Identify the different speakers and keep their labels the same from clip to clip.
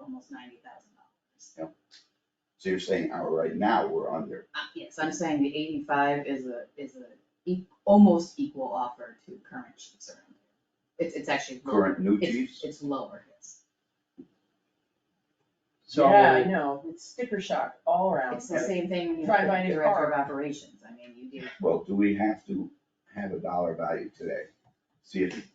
Speaker 1: almost ninety thousand dollars.
Speaker 2: So you're saying, oh, right now, we're under,
Speaker 1: Uh, Yes, I'm saying the eighty-five is a, is a e- almost equal offer to current chiefs around here. It's, it's actually. lower.
Speaker 2: current new
Speaker 1: It's-
Speaker 2: chiefs,
Speaker 1: It's lower, yes.
Speaker 3: Yeah, I
Speaker 4: So,
Speaker 3: know, it's sticker shock all around.
Speaker 1: It's the same thing when you
Speaker 3: Oh, Drive
Speaker 1: have
Speaker 3: by in
Speaker 1: the
Speaker 3: a
Speaker 1: director of
Speaker 3: car.
Speaker 1: operations, I mean, you do.
Speaker 2: well, do we have to have a dollar value today? See if,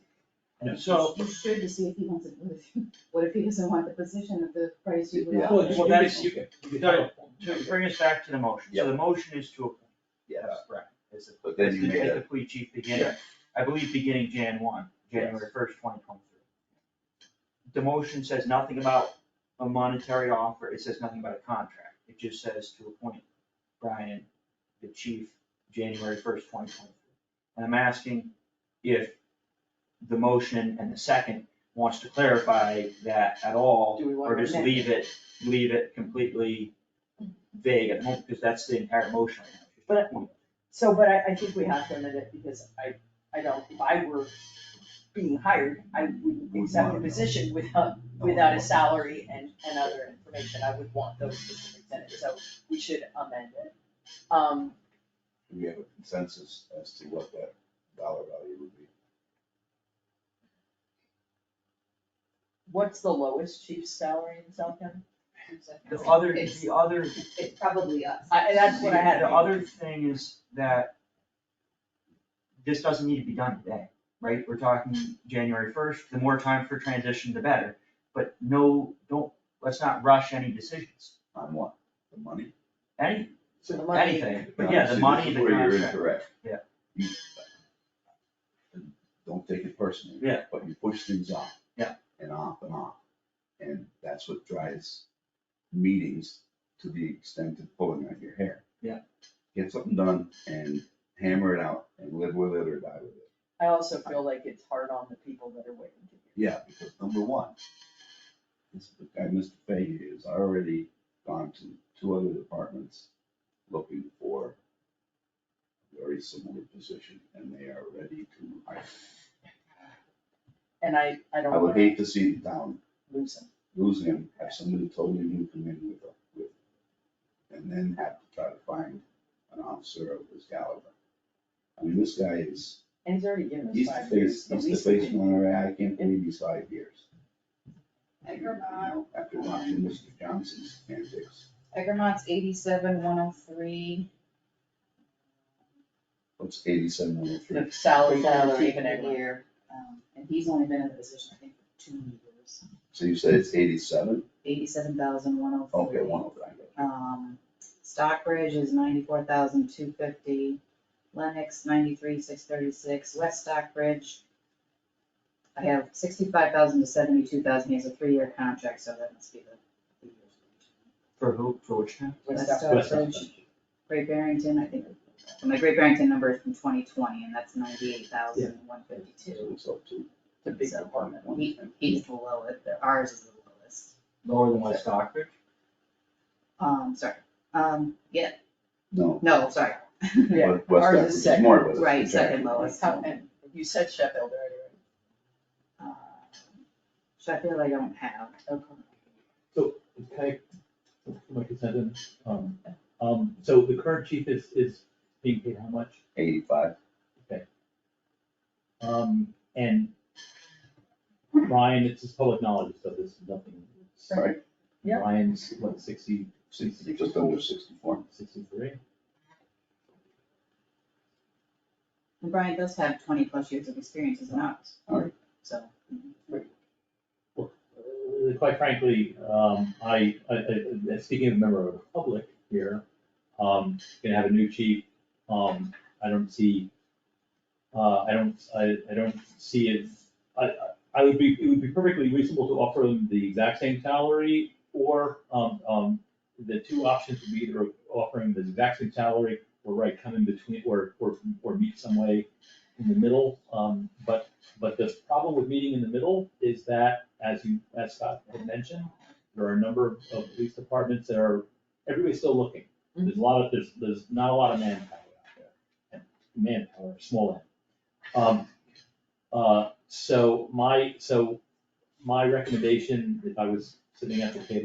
Speaker 4: No, so-
Speaker 1: You should to see if he wants it, what if, what if he doesn't want the position at the price you would
Speaker 2: Yeah.
Speaker 1: offer?
Speaker 4: well, that is,
Speaker 2: you
Speaker 4: to bring us back to the motion,
Speaker 2: Yeah.
Speaker 4: so the motion is to appoint.
Speaker 2: yes,
Speaker 4: Right. Is it-
Speaker 2: but then you
Speaker 4: is to
Speaker 2: made
Speaker 4: take
Speaker 2: a,
Speaker 4: the police chief beginning, I believe beginning Jan one, January first, twenty twenty-three. The motion says nothing about a monetary offer, it says nothing about a contract, it just says to appoint Brian, the chief, January first, twenty twenty-three. And I'm asking if the motion and the second wants to clarify that at all,
Speaker 3: Do we want
Speaker 4: or
Speaker 3: to
Speaker 4: just
Speaker 3: amend?
Speaker 4: leave it, leave it completely vague at the moment, because that's the entire motion.
Speaker 3: But- So, but I, I think we have to amend it because I, I don't, if I were being hired, I wouldn't
Speaker 2: Wouldn't
Speaker 3: accept
Speaker 2: wanna
Speaker 3: the
Speaker 2: know.
Speaker 3: position without, without a salary and, and other information. I would want those specifics in it, so we should amend it. Um,
Speaker 2: do we have a consensus as to what that dollar value would be?
Speaker 3: what's the lowest chief's salary in South County?
Speaker 4: The other,
Speaker 1: It's-
Speaker 4: the other,
Speaker 1: It's probably us.
Speaker 3: I, and that's what I had.
Speaker 4: the other thing is that this doesn't need to be done today, right? We're talking
Speaker 3: Mm-hmm.
Speaker 4: January first, the more time for transition, the better. But no, don't, let's not rush any decisions,
Speaker 2: On what, the money?
Speaker 4: any,
Speaker 3: So the money.
Speaker 4: anything, but yeah,
Speaker 2: See,
Speaker 4: the
Speaker 2: this
Speaker 4: money,
Speaker 2: is
Speaker 4: the
Speaker 2: Where you're
Speaker 4: contract.
Speaker 2: incorrect.
Speaker 4: Yeah.
Speaker 2: You- Don't take it personally.
Speaker 4: Yeah.
Speaker 2: But you push things off.
Speaker 4: Yeah.
Speaker 2: And off and off, and that's what drives meetings to the extent of pulling out your hair.
Speaker 4: Yeah.
Speaker 2: Get something done and hammer it out and live with it or die with it.
Speaker 3: I also feel like it's hard on the people that are waiting to hear.
Speaker 2: Yeah, because number one, this guy, Mr. Fahey, has already gone to two other departments looking for a very similar position, and they are ready to hire.
Speaker 3: And I, I
Speaker 2: I
Speaker 3: don't
Speaker 2: would
Speaker 3: wanna
Speaker 2: hate to see the town
Speaker 3: lose them.
Speaker 2: lose him, have somebody totally new come in with, a- with, and then have to try to find an officer of his caliber. I mean, this guy is,
Speaker 3: And he's already given us
Speaker 2: he's the
Speaker 3: five years.
Speaker 2: face,
Speaker 3: at
Speaker 2: he's
Speaker 3: least
Speaker 2: the
Speaker 3: we
Speaker 2: face
Speaker 3: can-
Speaker 2: runner, I can't believe he's five years.
Speaker 1: Egremont,
Speaker 2: You know, After watching Mr. Johnson's antics,
Speaker 1: Egremont's eighty-seven, one oh three.
Speaker 2: what's eighty-seven one oh three?
Speaker 1: The salary for
Speaker 3: Salary.
Speaker 1: chief in every year, um, and he's only been in the position, I think, for two years.
Speaker 2: So you said it's eighty-seven?
Speaker 1: Eighty-seven thousand, one oh
Speaker 2: Okay,
Speaker 1: three.
Speaker 2: one oh three.
Speaker 1: Um, Stockbridge is ninety-four thousand two fifty, Lennox ninety-three six thirty-six, West Stockbridge. I have sixty-five thousand to seventy-two thousand, he has a three-year contract, so that must be the.
Speaker 4: For who, for which town?
Speaker 3: West
Speaker 1: West
Speaker 3: Stockbridge.
Speaker 1: Stockbridge, Great Barrington, I think, my Great Barrington number is from twenty twenty, and that's ninety-eight thousand one
Speaker 2: So
Speaker 1: fifty-two.
Speaker 2: it's up to
Speaker 3: the big
Speaker 1: So,
Speaker 3: department.
Speaker 1: He, he's the lowest, ours is the lowest.
Speaker 4: Lower than West Stockbridge?
Speaker 1: Um, sorry, um, yeah,
Speaker 2: No.
Speaker 1: no, sorry,
Speaker 3: Yeah,
Speaker 2: but West
Speaker 3: ours is
Speaker 2: Africa is
Speaker 3: second.
Speaker 2: more, but it's
Speaker 1: right, second
Speaker 2: contractual.
Speaker 1: lowest.
Speaker 3: How- and you said Sheffield earlier.
Speaker 1: Uh, Sheffield I don't have.
Speaker 5: Okay, my consent, and, um, um, so the current chief is, is being paid how much?
Speaker 2: Eighty-five,
Speaker 5: Um, and Ryan, it's just public knowledge, so this is nothing.
Speaker 2: right?
Speaker 3: Yeah.
Speaker 5: Ryan's what, sixty,
Speaker 2: Sixty, just under sixty-four.
Speaker 5: sixty-three?
Speaker 1: And Brian does have twenty plus years of experience as an artist.
Speaker 2: Alright.
Speaker 1: So,
Speaker 5: Uh, Quite frankly, um, I, I, I- uh, speaking of a member of the public here, um, gonna have a new chief, um, I don't see, uh, I don't, I, I don't see it, I, I- I would be, it would be perfectly reasonable to offer them the exact same salary, or, um, um, the two options would be either offering the exact same salary, or right, come in between, or, or, or meet some way in the middle, um, but, but the problem with meeting in the middle is that as you, as Scott had mentioned, there are a number of, of police departments that are, everybody's still looking. There's a lot of, there's, there's not a lot of manpower out there, and manpower, small end. Um, uh, so my, so my recommendation, if I was sitting at the table